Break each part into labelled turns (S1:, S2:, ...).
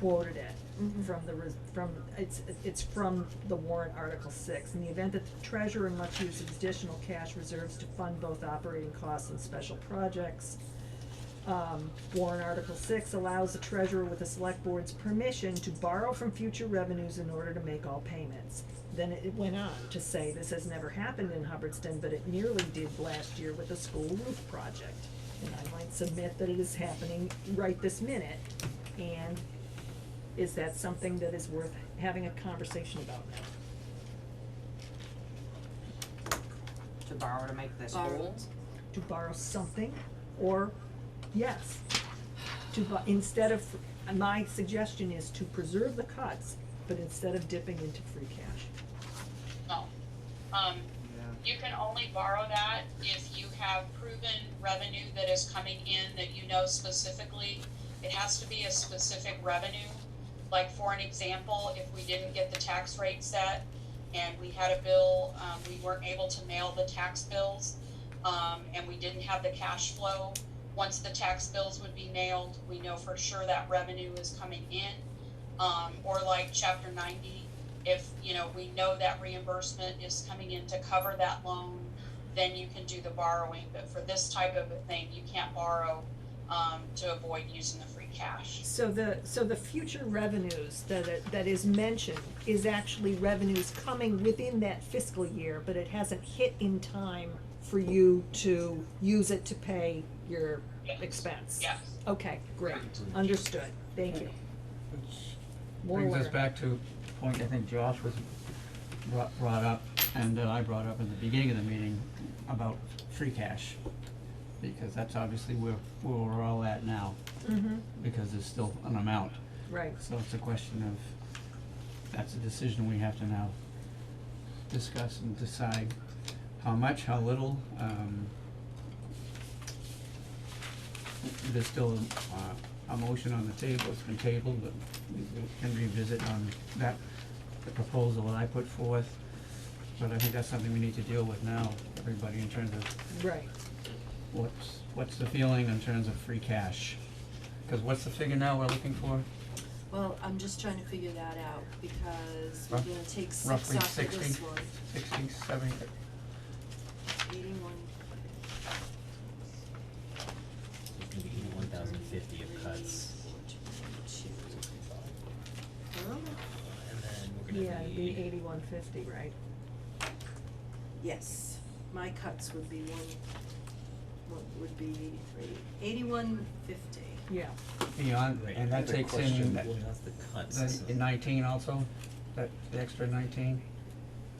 S1: quoted it
S2: Mhm.
S1: from the res- from, it's, it's from the warrant article six. In the event that the treasurer must use additional cash reserves to fund both operating costs and special projects. Um, warrant article six allows the treasurer with the select board's permission to borrow from future revenues in order to make all payments. Then it went on to say, this has never happened in Hubbardston, but it nearly did last year with the school roof project. And I might submit that it is happening right this minute, and is that something that is worth having a conversation about now?
S3: to borrow to make this
S2: Borrow.
S3: whole.
S1: To borrow something, or, yes, to bu- instead of, my suggestion is to preserve the cuts, but instead of dipping into free cash.
S4: No. Um, you can only borrow that if you have proven revenue that is coming in that you know specifically. It has to be a specific revenue. Like for an example, if we didn't get the tax rate set and we had a bill, um, we weren't able to mail the tax bills, um, and we didn't have the cash flow, once the tax bills would be nailed, we know for sure that revenue is coming in. Um, or like chapter ninety, if, you know, we know that reimbursement is coming in to cover that loan, then you can do the borrowing, but for this type of a thing, you can't borrow, um, to avoid using the free cash.
S1: So the, so the future revenues that, it- that is mentioned is actually revenues coming within that fiscal year, but it hasn't hit in time for you to use it to pay your
S4: Yes.
S1: expense.
S4: Yes.
S1: Okay, great, understood, thank you.
S5: Which
S1: More
S5: brings us
S1: learning.
S5: back to a point I think Josh was brought, brought up, and that I brought up at the beginning of the meeting about free cash. Because that's obviously where, where we're all at now,
S1: Mhm,
S5: because there's still an amount.
S1: right,
S5: So it's a question of, that's a decision we have to now discuss and decide how much, how little, um. There's still, uh, a motion on the table, it's been tabled, but we we can revisit on that, the proposal that I put forth. But I think that's something we need to deal with now, everybody, in terms of
S1: right.
S5: what's, what's the feeling in terms of free cash? Cause what's the figure now we're looking for?
S2: Well, I'm just trying to figure that out because we're
S5: Rough-
S2: gonna take six
S5: roughly
S2: off of
S5: 60.
S2: this one,
S5: Sixty, seventy,
S2: eighty-one,
S6: It's gonna be eighty-one thousand fifty of cuts.
S2: um,
S6: And then we're gonna be.
S1: Yeah, it'd be eighty-one fifty, right?
S2: yes, my cuts would be one, what would be eighty-three, eighty-one fifty.
S1: Yeah,
S5: beyond,
S6: Right,
S5: and that
S6: another
S5: takes
S6: question,
S5: in that,
S6: well, that's the cuts.
S5: that nineteen also, that, the extra nineteen?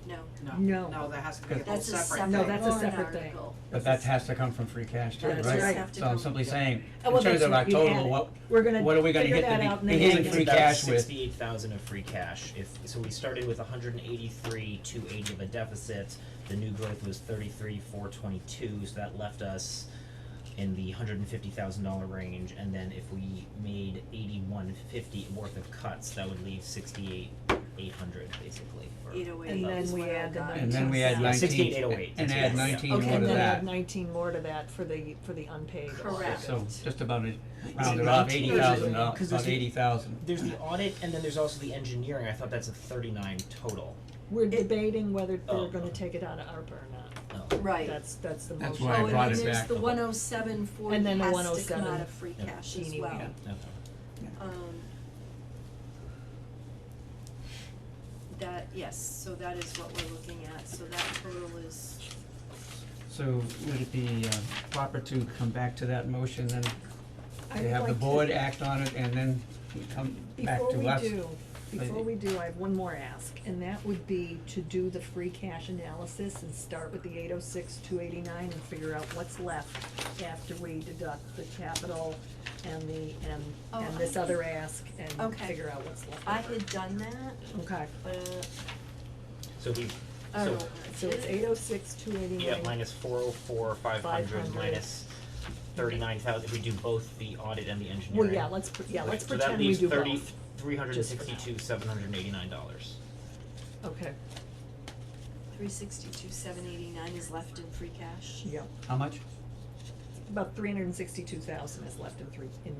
S2: No,
S1: No.
S3: No, no, that has to be a whole
S2: that's a
S3: separate
S2: separate
S3: thing.
S1: No, that's a
S2: warrant
S1: separate thing.
S2: article.
S5: But that has to come from free cash too,
S1: That's
S2: Just
S1: right.
S5: right?
S2: have to
S5: So I'm
S2: come-
S5: simply saying,
S1: Oh, well,
S5: in terms
S1: that's
S5: of our
S1: right, you add
S5: total,
S1: it.
S5: what,
S1: We're gonna
S5: what are we gonna
S1: figure
S5: hit
S1: that out
S5: the
S1: in
S5: be-
S1: the
S5: beginning
S1: end.
S5: free cash with?
S6: Sixty-eight thousand of free cash, if, so we started with hundred and eighty-three, two eighty of a deficit, the new growth was thirty-three, four twenty-two, so that left us in the hundred and fifty thousand dollar range, and then if we made eighty-one fifty worth of cuts, that would leave sixty-eight, eight hundred basically, or
S2: Eight oh eight
S1: And then
S2: is
S1: we
S2: what I
S1: add the
S2: got.
S5: And then we add
S6: Yeah,
S5: nineteen,
S6: 68,808,
S5: and
S6: that's
S5: add
S6: it.
S5: nineteen more to
S1: okay,
S5: that.
S1: and then add nineteen more to that for the, for the unpaid.
S2: Correct.
S5: So just about it,
S6: it
S5: rounded off,
S6: 19?
S5: eighty thousand,
S6: Because
S5: about
S6: there's the-
S5: eighty thousand.
S6: There's the audit, and then there's also the engineering. I thought that's a 39 total.
S1: We're debating whether
S6: Oh.
S1: they're gonna take it out of ARPA or not.
S6: Oh,
S2: Right,
S1: That's, that's the
S5: That's
S1: motion.
S5: why I
S2: oh,
S5: brought
S2: and
S5: it
S2: then there's
S5: back.
S2: the one oh seven forty
S1: And
S2: has
S1: then the
S2: to come
S1: 107.
S2: out of free
S6: Yeah.
S2: cash Oh, as
S1: Teeny
S2: well.
S1: weeny.
S6: okay.
S2: Um. That, yes, so that is what we're looking at, so that total is,
S5: So would it be uh, proper to come back to that motion then?
S1: I
S5: To
S1: would
S5: have the
S1: like to-
S5: board act on it and then come back
S1: Before
S5: to
S1: we
S5: us?
S1: do, before we
S5: Maybe.
S1: do, I have one more ask, and that would be to do the free cash analysis and start with the eight oh six, two eighty-nine and figure out what's left after we deduct the capital and the, and,
S2: Oh,
S1: and this
S2: I-
S1: other ask and
S2: Okay.
S1: figure out what's left.
S2: I
S1: over.
S2: had done that,
S1: Okay,
S2: but,
S6: So we.
S2: I
S6: So
S2: don't know.
S1: so it's eight oh six, two eighty-nine.
S6: yeah, minus 404, 500,
S1: 500.
S6: minus 39,000. If we do both the audit and the engineering.
S1: Well, yeah, let's, pre- yeah,
S6: Right,
S1: let's
S6: so
S1: pretend we do both.
S6: that leaves 30,
S1: Just for now.
S6: 362, 789 dollars.
S1: Okay,
S2: three sixty-two, seven eighty-nine is left in free cash.
S1: yeah,
S5: How much?
S1: about three hundred and sixty-two thousand is left in three, in